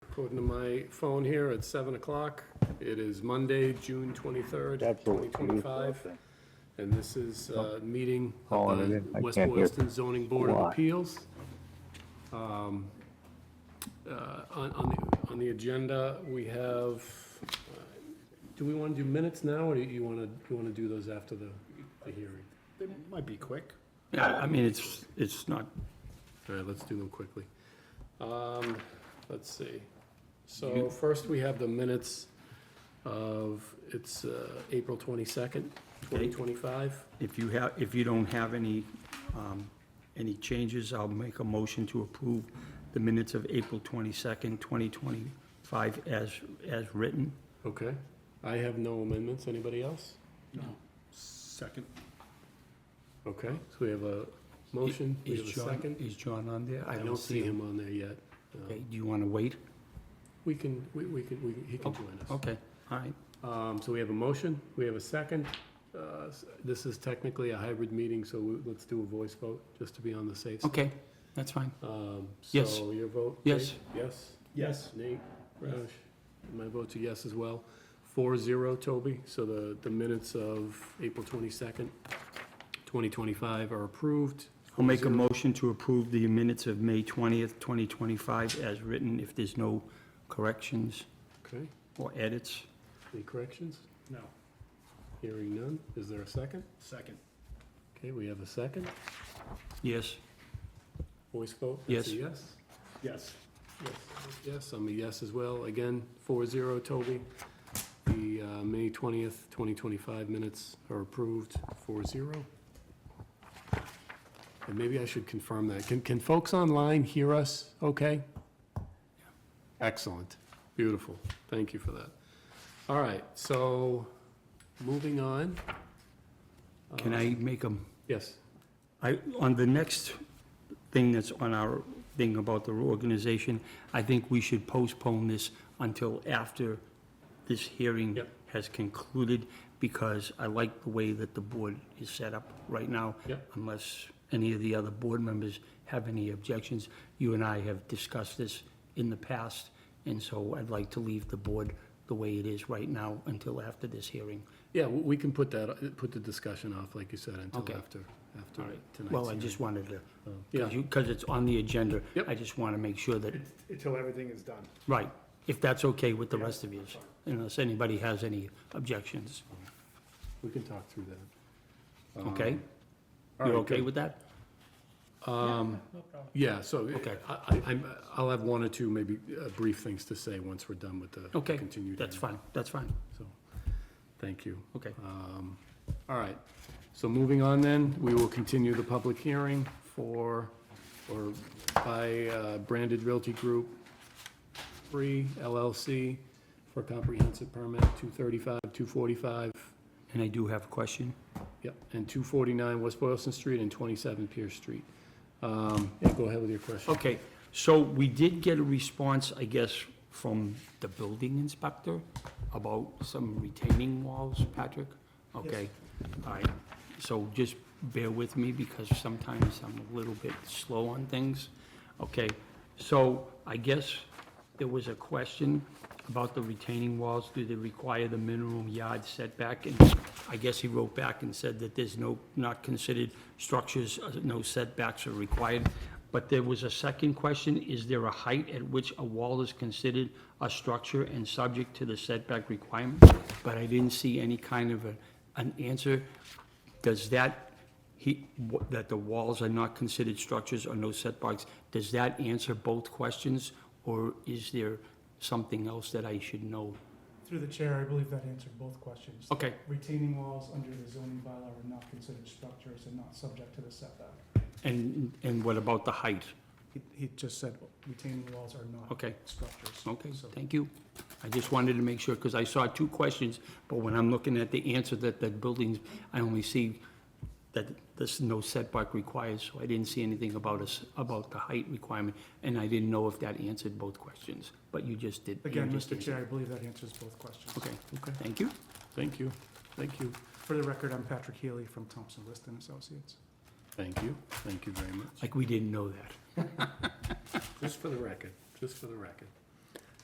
According to my phone here, it's seven o'clock. It is Monday, June twenty-third, Absolutely. twenty twenty-five. And this is a meeting of Calling it the in. Oh, I West can't hear. Boylston Zoning Board of Why? Appeals. Um, uh, On, on the, on the agenda, we have, uh, do we want to do minutes now, or do you want to, you want to do those after the, the hearing? They might be quick. Yeah, I mean, it's, it's not, All right, let's do them quickly. Um, Let's see. So first, we have the minutes of, it's uh, April 22nd, 2025. if you have, if you don't have any, um, any changes, I'll make a motion to approve the minutes of April twenty-second, twenty twenty-five as, as written. Okay. I have no amendments. Anybody else? No. Second. Okay, so we have a motion, we Is have a John- second. Is John on there? I don't see him on there yet. Uh, Okay, do you wanna wait? We can, we we can, we- he can join us. Okay, all right. Um, So we have a motion, we have a second. Uh, s- This is technically a hybrid meeting, so we- let's do a voice vote, just to be on the safe side. Okay, that's fine. Um, Yes. So your vote? Yes. Dave? Yes? Yes. Nate? Roush? My vote's a yes as well. Four zero, Toby. So the, the minutes of April twenty-second, twenty twenty-five are approved. I'll make a motion to approve the minutes of May twentieth, twenty twenty-five as written, if there's no corrections Okay, or edits. any corrections? No. Hearing none. Is there a second? Second. Okay, we have a second. Yes, Voice vote? that's a Yes. Yes? Yes. Yes. Yes, I'm a yes as well. Again, four zero, Toby. The uh, May twentieth, twenty twenty-five minutes are approved, four zero. And maybe I should confirm that. Can, can folks online hear us okay? Excellent. Beautiful. Thank you for that. All right, so moving on. Uh, can I make a Yes. I, on the next thing that's on our thing about the organization, I think we should postpone this until after this hearing Yep. has concluded, because I like the way that the board is set up right now. Yep. Unless any of the other board members have any objections. You and I have discussed this in the past, and so I'd like to leave the board the way it is right now until after this hearing. Yeah, w- we can put that, put the discussion off, like you said, until Okay. after, after tonight's Well, I hearing. just wanted to, Oh. Yeah. because it's on the agenda. Yep. I just want to make sure that, Until everything is done. right, if that's okay with the rest of yous, unless anybody has any objections, We can talk through that. okay? Um, all You're right, okay good. with that? Yeah, so Okay. I- I, I'm, I'll have one or two maybe uh, brief things to say once we're done with the Okay, continued. that's hearing. fine, that's fine, So, thank you. okay. Um, All right, so moving on then, we will continue the public hearing for, or by uh, Branded Realty Group, Free LLC for comprehensive permit 235, 245, And I do have a question. Yep, and 249 West Boylston Street and 27 Pierce Street. Um, Yeah, go ahead with your question. Okay, so we did get a response, I guess, from the building inspector about some retaining walls, Patrick? Okay, all right, so just bear with me because sometimes I'm a little bit slow on things. Okay, so I guess there was a question about the retaining walls, do they require the minimum yard setback? And I guess he wrote back and said that there's no, not considered structures, uh, no setbacks are required. But there was a second question, is there a height at which a wall is considered a structure and subject to the setback requirement? But I didn't see any kind of a, an answer. Does that, he, wh- that the walls are not considered structures or no setbacks, does that answer both questions? Or is there something else that I should know? Through the chair, I believe that answered both questions. Okay, Retaining walls under the zoning bylaw are not considered structures and not subject to the setback. and, and what about the height? He, he just said retaining walls are not Okay. structures. Okay, So- thank you. I just wanted to make sure, because I saw two questions, but when I'm looking at the answer that the buildings, I only see that there's no setback required, so I didn't see anything about us, about the height requirement, and I didn't know if that answered both questions, but you just did. you Again, just Mr. answered. Chair, I believe that answers both questions. Okay, thank you. Thank you, thank you. For the record, I'm Patrick Healy from Thompson List and Associates. Thank you, thank you very much. Like, we didn't know that. Just for the record, just for the record.